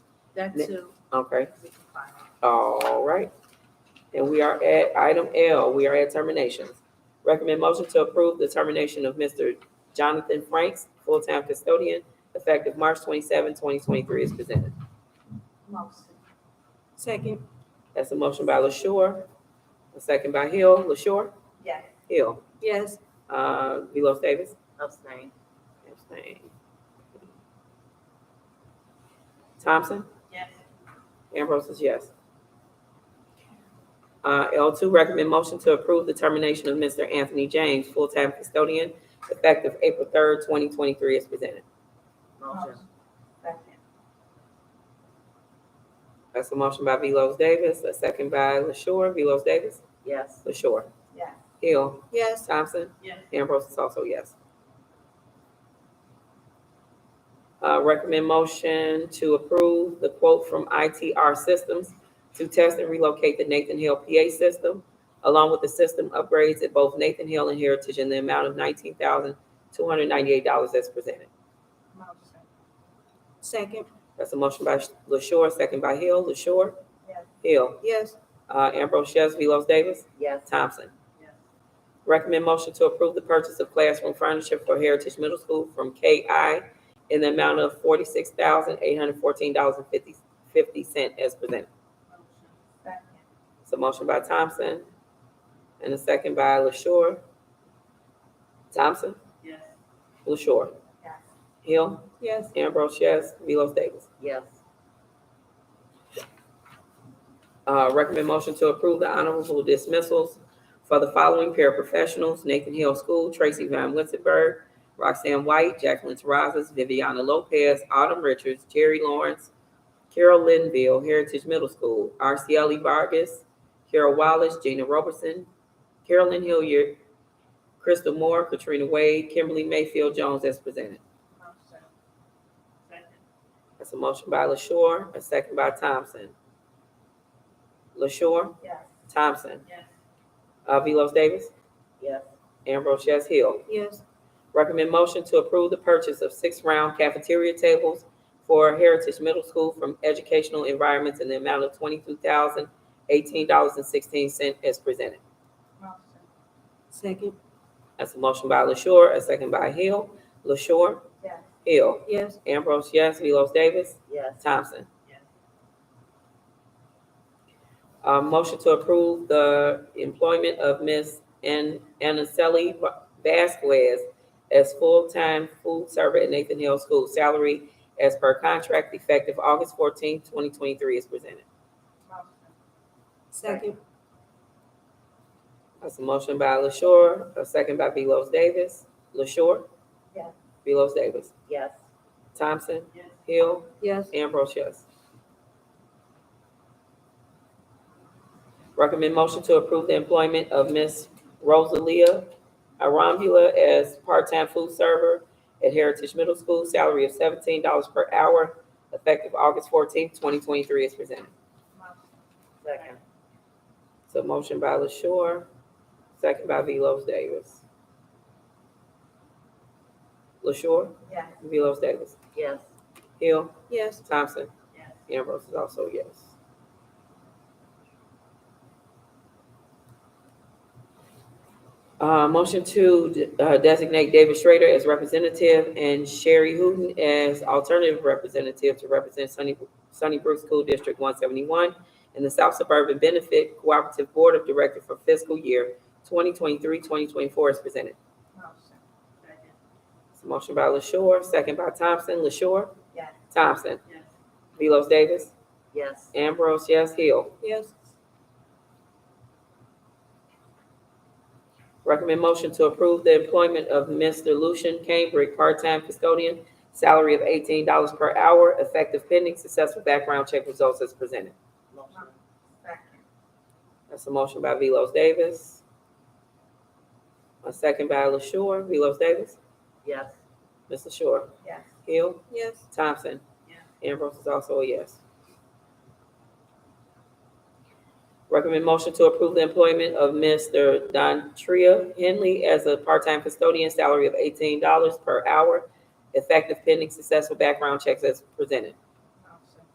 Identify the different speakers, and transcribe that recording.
Speaker 1: that
Speaker 2: Ne-
Speaker 1: too.
Speaker 2: Okay,
Speaker 1: we can find out.
Speaker 2: all right. And we are at item L, we are at terminations. Recommend motion to approve the termination of Mr. Jonathan Franks, full-time custodian, effective March 27, 2023, is presented.
Speaker 1: Motion.
Speaker 3: Second,
Speaker 2: That's a motion by LaShure, a second by Hill. LaShure?
Speaker 1: Yes.
Speaker 2: Hill.
Speaker 3: yes,
Speaker 2: Uh, Velos Davis?
Speaker 1: Abstain.
Speaker 2: Abstain. Thompson?
Speaker 1: Yes.
Speaker 2: Ambrose is yes. Uh, L two, recommend motion to approve the termination of Mr. Anthony James, full-time custodian, effective April third, twenty twenty-three, as presented.
Speaker 1: Motion. Second.
Speaker 2: That's a motion by Velos Davis, a second by LaShure. Velos Davis?
Speaker 1: Yes.
Speaker 2: LaShure.
Speaker 1: Yes.
Speaker 2: Hill.
Speaker 3: yes,
Speaker 2: Thompson?
Speaker 1: Yes.
Speaker 2: Ambrose is also yes. Uh, recommend motion to approve the quote from ITR Systems to test and relocate the Nathan Hill PA system, along with the system upgrades at both Nathan Hill and Heritage in the amount of nineteen thousand, two hundred ninety-eight dollars as presented.
Speaker 1: Motion.
Speaker 3: second,
Speaker 2: That's a motion by LaShure, second by Hill. LaShure?
Speaker 1: Yes.
Speaker 2: Hill.
Speaker 3: yes,
Speaker 2: Uh, Ambrose, yes. Velos Davis?
Speaker 1: Yes.
Speaker 2: Thompson?
Speaker 1: Yes.
Speaker 2: Recommend motion to approve the purchase of classroom furniture for Heritage Middle School from KI in the amount of forty-six thousand, eight hundred fourteen dollars and fifty, fifty cent as presented.
Speaker 1: Motion. Second.
Speaker 2: It's a motion by Thompson and a second by LaShure. Thompson,
Speaker 1: Yes.
Speaker 2: LaShure,
Speaker 1: Yes.
Speaker 2: Hill,
Speaker 3: yes,
Speaker 2: Ambrose, yes, Velos Davis.
Speaker 1: Yes.
Speaker 2: Uh, recommend motion to approve the honorable dismissals for the following paraprofessionals, Nathan Hill School, Tracy Van Winterberg, Roxanne White, Jacqueline Terrazas, Viviana Lopez, Autumn Richards, Jerry Lawrence, Carol Linville, Heritage Middle School, RCLE E Vargas, Carol Wallace, Gina Robertson, Carolyn Hilliard, Crystal Moore, Katrina Wade, Kimberly Mayfield Jones as presented.
Speaker 1: Motion. Second.
Speaker 2: That's a motion by LaShure, a second by Thompson. LaShure,
Speaker 1: Yes.
Speaker 2: Thompson.
Speaker 1: Yes.
Speaker 2: Uh, Velos Davis,
Speaker 1: Yes.
Speaker 2: Ambrose Yes Hill.
Speaker 3: yes,
Speaker 2: Recommend motion to approve the purchase of six round cafeteria tables for Heritage Middle School from Educational Environments in the amount of twenty-two thousand eighteen dollars and sixteen cent as presented.
Speaker 1: Motion.
Speaker 3: second,
Speaker 2: That's a motion by LaShure, a second by Hill. LaShure,
Speaker 1: Yes.
Speaker 2: Hill.
Speaker 3: yes,
Speaker 2: Ambrose, yes. Velos Davis,
Speaker 1: Yes.
Speaker 2: Thompson.
Speaker 1: Yes.
Speaker 2: Uh, motion to approve the employment of Ms. An- Anaceli Vasquez as full-time food server at Nathan Hill School. Salary as per contract effective August fourteenth, twenty twenty-three is presented.
Speaker 1: Motion.
Speaker 3: second,
Speaker 2: That's a motion by LaShure, a second by Velos Davis. LaShure?
Speaker 1: Yes.
Speaker 2: Velos Davis.
Speaker 1: Yes.
Speaker 2: Thompson?
Speaker 1: Yes.
Speaker 2: Hill?
Speaker 3: yes,
Speaker 2: Ambrose, yes. Recommend motion to approve the employment of Miss Rosalia Arambula as part-time food server at Heritage Middle School, salary of seventeen dollars per hour, effective August fourteenth, twenty twenty-three is presented.
Speaker 1: Motion. Second.
Speaker 2: So motion by LaShure, second by Velos Davis. LaShure,
Speaker 1: Yes.
Speaker 2: Velos Davis,
Speaker 1: Yes.
Speaker 2: Hill,
Speaker 3: yes,
Speaker 2: Thompson,
Speaker 1: Yes.
Speaker 2: Ambrose is also a yes. Uh, motion to de- uh, designate David Schrader as representative and Sherry Hooten as alternative representative to represent Sunny, Sunnybrook School District one seventy-one and the South Suburban Benefit Cooperative Board of Directors for fiscal year 2023-2024 is presented.
Speaker 1: Motion. Second.
Speaker 2: It's a motion by LaShure, second by Thompson. LaShure?
Speaker 1: Yes.
Speaker 2: Thompson?
Speaker 1: Yes.
Speaker 2: Velos Davis?
Speaker 1: Yes.
Speaker 2: Ambrose, yes. Hill?
Speaker 3: yes,
Speaker 2: Recommend motion to approve the employment of Mr. Lucian Cambridge, part-time custodian, salary of eighteen dollars per hour, effective pending successful background check results as presented.
Speaker 1: Motion. Second.
Speaker 2: That's a motion by Velos Davis. A second by LaShure. Velos Davis?
Speaker 1: Yes.
Speaker 2: Mr. LaShure?
Speaker 1: Yes.
Speaker 2: Hill?
Speaker 3: yes,
Speaker 2: Thompson?
Speaker 1: Yes.
Speaker 2: Ambrose is also a yes. Recommend motion to approve the employment of Mr. Dontria Henley as a part-time custodian, salary of eighteen dollars per hour, effective pending successful background checks as presented.